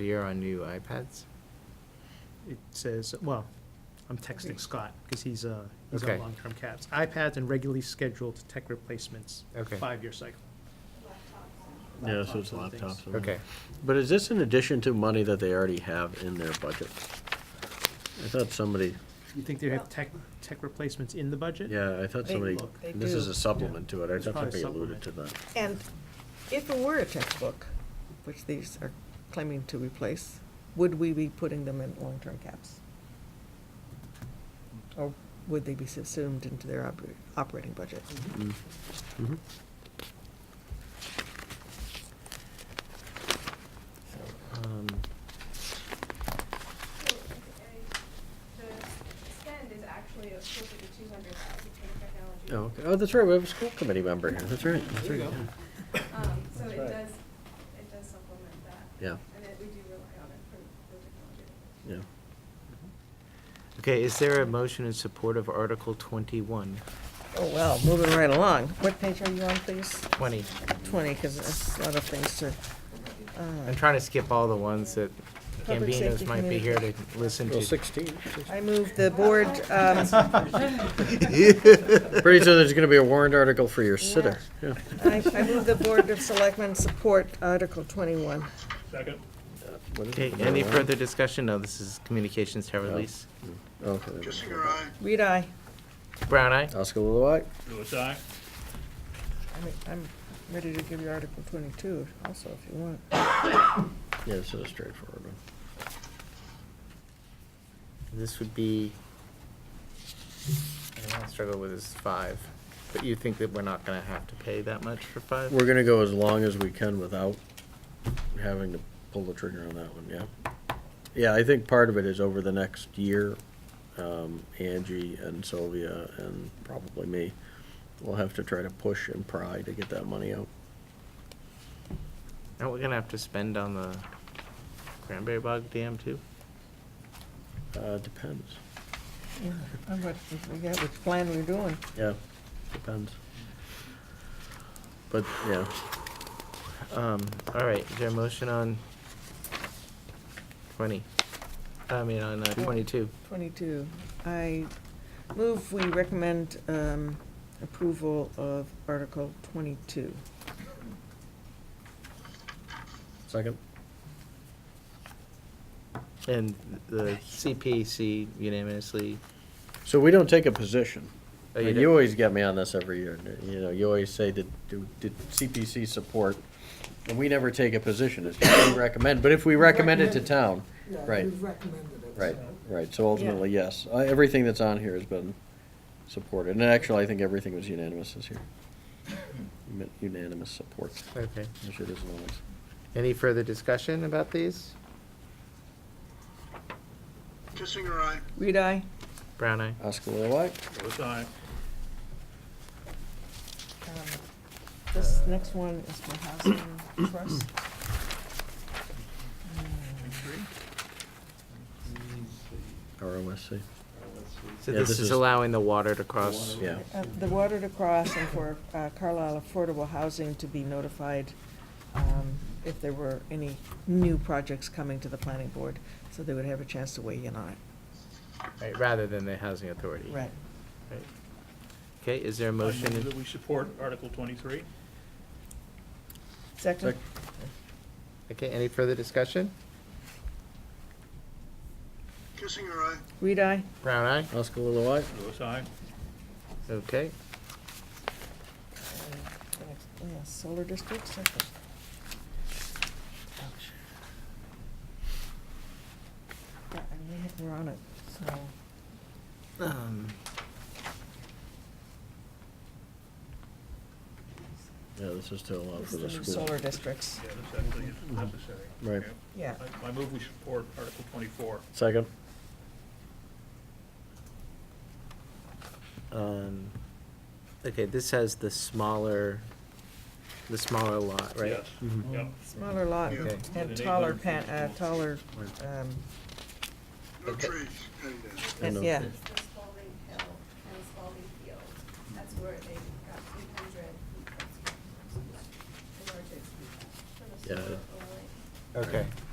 the year on new iPads? It says, well, I'm texting Scott, because he's, uh, he's Okay. on long-term caps. iPads and regularly scheduled tech replacements, Okay. five-year cycle. Yeah, so it's Laptops and laptops. things. and- Okay, But is this in addition to money that they already have in their budget? I thought somebody, You think they have tech, tech replacements in the budget? yeah, I thought They- somebody, Look, they this is do. a supplement to it. I It's thought probably somebody a alluded to that. And if it were a textbook, which these are claiming to replace, would we be putting them in long-term caps? Or would they be subsumed into their oper- operating budget? Mhm. um, So, uh, The spend is actually closer to two hundred thousand for the technology. Oh, okay. Oh, that's right, we have a school committee member here. That's right, that's right. Um, so That's it right. does, it does supplement that. Yeah. And it, we do rely on it for the technology. Yeah. okay, is there a motion in support of Article twenty-one? Oh, well, moving right along. What page are you on, please? Twenty. Twenty, because there's a lot of things to. uh, I'm trying to skip all the ones that Public Gambinos safety might be committee. here to listen Well, to. sixteen. I move the board, um, Pretty soon there's gonna be a warrant article for your sitter. Yeah. I, I move the Board of Selectmen support Article twenty-one. What is Okay, it? any further discussion? No, this is communications tower release. Okay. Kissinger, aye. Read aye. Brown eye? Oscar Lilloye? Louis, aye. I mean, I'm ready to give you Article twenty-two also, if you want. Yeah, this is a straightforward one. This would be, I don't know, I struggle with this five, but you think that we're not gonna have to pay that much for five? We're gonna go as long as we can without having to pull the trigger on that one, yeah. Yeah, I think part of it is over the next year, um, Angie and Sylvia and probably me will have to try to push and pry to get that money out. Aren't we gonna have to spend on the cranberry bog dam too? Uh, depends. Yeah, I'm what, we got which plan we're doing. Yeah, depends. But, yeah, Um, all right, is there a motion on twenty? I mean, on uh, twenty-two. Twenty-two, I move we recommend, um, approval of Article twenty-two. second? And the CPC unanimously, So we don't take a position. Oh, you And don't? You always get me on this every year, you know, you always say, did, do- did CPC support? And we never take a position, it's just we recommend, but if we recommend it to town, right, recommended it. right, right, so ultimately, yes. Uh, Everything that's on here has been supported, and actually, I think everything was unanimous this year. Uni- Unanimous support, okay. which it is always. Any further discussion about these? Kissinger, aye. Read aye. Brown eye? Oscar Lilloye? Louis, aye. Um, uh, This next one is for housing trust. hmm. ROSC, So Yeah, this this is is- allowing the water to cross. yeah. Uh, The water to cross and for uh, Carlisle Affordable Housing to be notified um, if there were any new projects coming to the planning board, so they would have a chance to weigh in on it. Right, rather than the housing authority. Right. Okay, is there a I motion? move in- That we support Article twenty-three. Second? Sec- Okay, any further discussion? Kissinger, aye. Read aye. Uh, Brown eye? Oscar Lilloye? Louis, aye. Okay. Yeah, Solar district, second. Yeah, I mean, We're on it, so. Um, Yeah, this is to This allow for is the the new school. solar districts. Yeah, this actually is necessary. Right. Yeah. Yeah. I- I move we support Article twenty-four. Second? um, Okay, this has the smaller, the smaller lot, right? Yes, yep. Smaller lot Yeah. and taller pan, uh, taller, um, No Okay. trees, and, uh, And and- the- yeah. It's the Spalding Hill and Spalding Field. That's where they got two hundred. In order to. Yeah. Okay.